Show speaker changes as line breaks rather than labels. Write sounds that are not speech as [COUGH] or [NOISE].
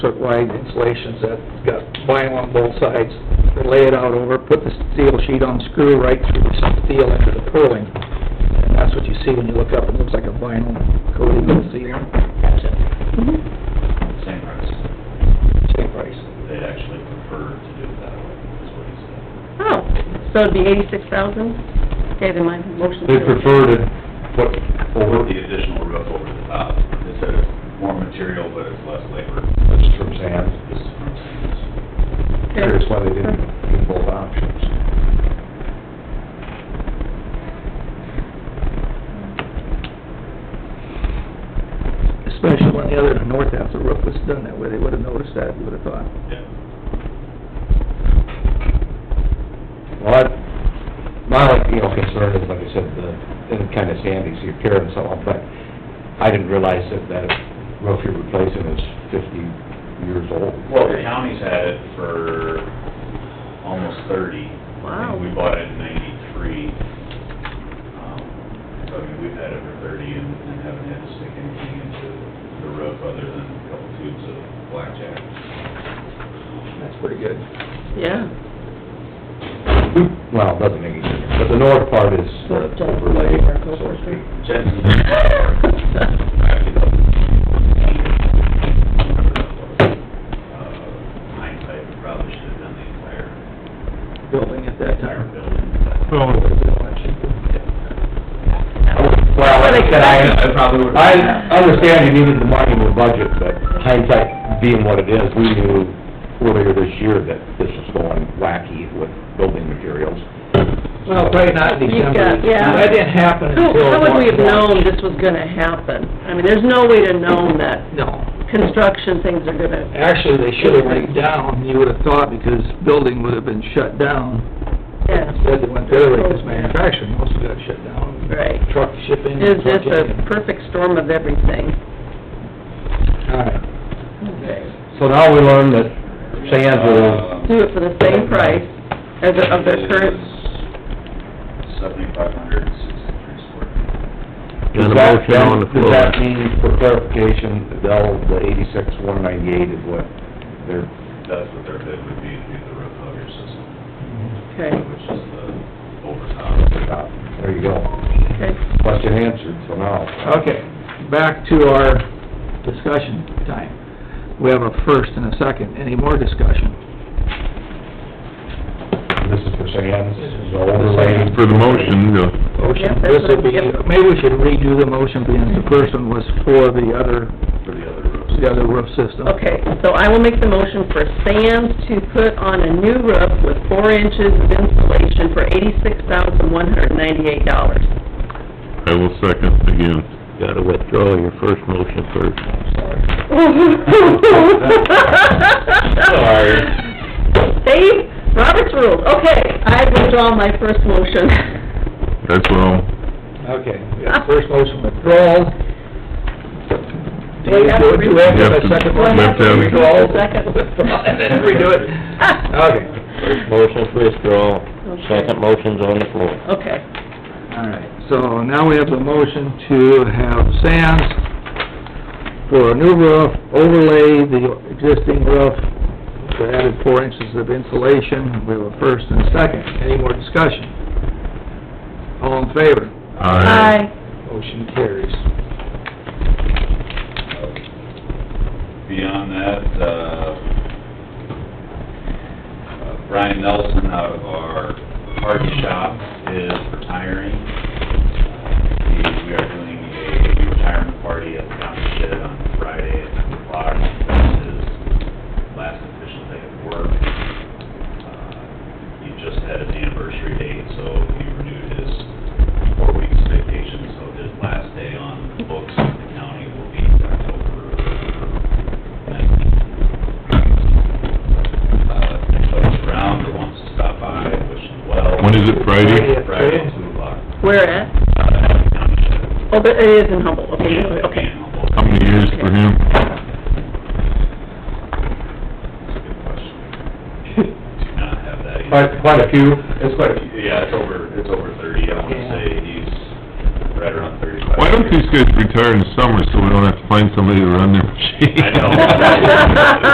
circle-wide installations that's got vinyl on both sides. They lay it out over, put the steel sheet on, screw right through the steel into the purling. And that's what you see when you look up, it looks like a vinyl coated ceiling.
Mm-hmm.
Same price.
Same price.
They'd actually prefer to do it that way, is what he said.
Oh, so it'd be eighty-six thousand? Okay, then my motion.
They prefer to put
Or
over,
the additional roof over the top. They said it's more material, but it's less labor.
that's from Sam.
This is from Sands.
Curious why they didn't give both options.
Especially when the other, the north half of the roof was done that way, they would've noticed that, you would've thought.
Yeah.
Well, I- my, like, you know, concern is, like I said, the, and kind of Sandy's, the appearance of it, but I didn't realize that that roof you're replacing is fifty years old.
Well, the county's had it for almost thirty. I
Wow.
think we bought it in ninety-three. Um, So, I mean, we've had it for thirty and and haven't had to stick anything into the roof other than a couple tubes of blackjack.
That's pretty good.
Yeah.
Well, it doesn't make any difference, but the north part is the overlay, so to speak.
Jensen's actually, the- uh, hindsight, we probably should have done the entire,
Building at that
entire
time.
building, but
Well, like I said, I,
I probably would-
I understand you needed the money in the budget, but hindsight being what it is, we knew earlier this year that this was going wacky with building materials.
Well, probably not in
[LAUGHS]
December.
You've [LAUGHS] got- yeah.
That didn't happen
How,
until...
how would we have
March.
known this was gonna happen? I mean, there's no way to know that
No.
construction things are gonna,
Actually, they should have went down, you would have thought, because building would have been shut down.
yeah,
Instead, they went the other way, because manufacturing also got shut down.
right.
Truck shipping,
It was
truck
just a
in.
perfect storm of everything.
All right.
Okay.
So now we learn that Sands will,
Do it for the same price as the- of their current,
Seventy-five hundred and sixty-three square feet.
does that, does that mean, for clarification, they'll, the eighty-six, one ninety-eight is what they're,
That's what their bid would be, to do the roof of your system,
okay,
which is the overtop.
uh, there you go.
okay.
Question answered, so now.
Okay, back to our discussion time. We have a first and a second. Any more discussion?
This is for Sands, the overlay.
For the motion, uh,
Motion,
Yep, that's
this will
what I'm- Mm-hmm.
be,
yep.
maybe we should redo the motion, being the first one was for the other,
For the other roofs.
the other roof system.
Okay, so I will make the motion for Sands to put on a new roof with four inches of insulation for eighty-six thousand one hundred ninety-eight dollars.
I will second again. Gotta withdraw your first motion first.
Sorry. Dave, Robert's rules, okay, I withdraw my first motion.
That's all.
Okay, we got first motion withdrawal. Do
We
you
have
do
to
it, do we have to have
redo-
a second
Well,
one?
I have to redo
Withdrawal.
the [LAUGHS] second.
Withdrawal, And then redo it. [LAUGHS] Okay,
Motion to withdraw,
Okay. Second
motion's on the floor.
Okay,
all right, so now we have the motion to have Sands for a new roof, overlay the existing roof, we added four inches of insulation, we have a first and a second, any more discussion? All in favor?
Aye.
aye,
Motion carries.
Beyond that, uh, uh, Brian Nelson out of our parts shop is retiring. He- We are doing a retirement party at the county shed on Friday at nine o'clock. That's his last official day of work. Uh, He just had his anniversary date, so he renewed his four weeks vacation, so his last day on the books in the county will be October Uh, folks around that wants to stop by, wish them well.
When is it, Friday?
Friday at two o'clock.
where at?
Uh, at the county shed.
Oh, but it is in Humboldt, okay,
Yeah,
okay.
and Humboldt.
How many years for him?
That's a good question. Do not have that. either.
Quite, quite a few, it's quite a few.
Yeah, it's over, it's over thirty, I wanna say he's right around thirty-five.
Why [LAUGHS] don't these guys retire in the summer so we don't have to find somebody to run their machine?
I know. [LAUGHS]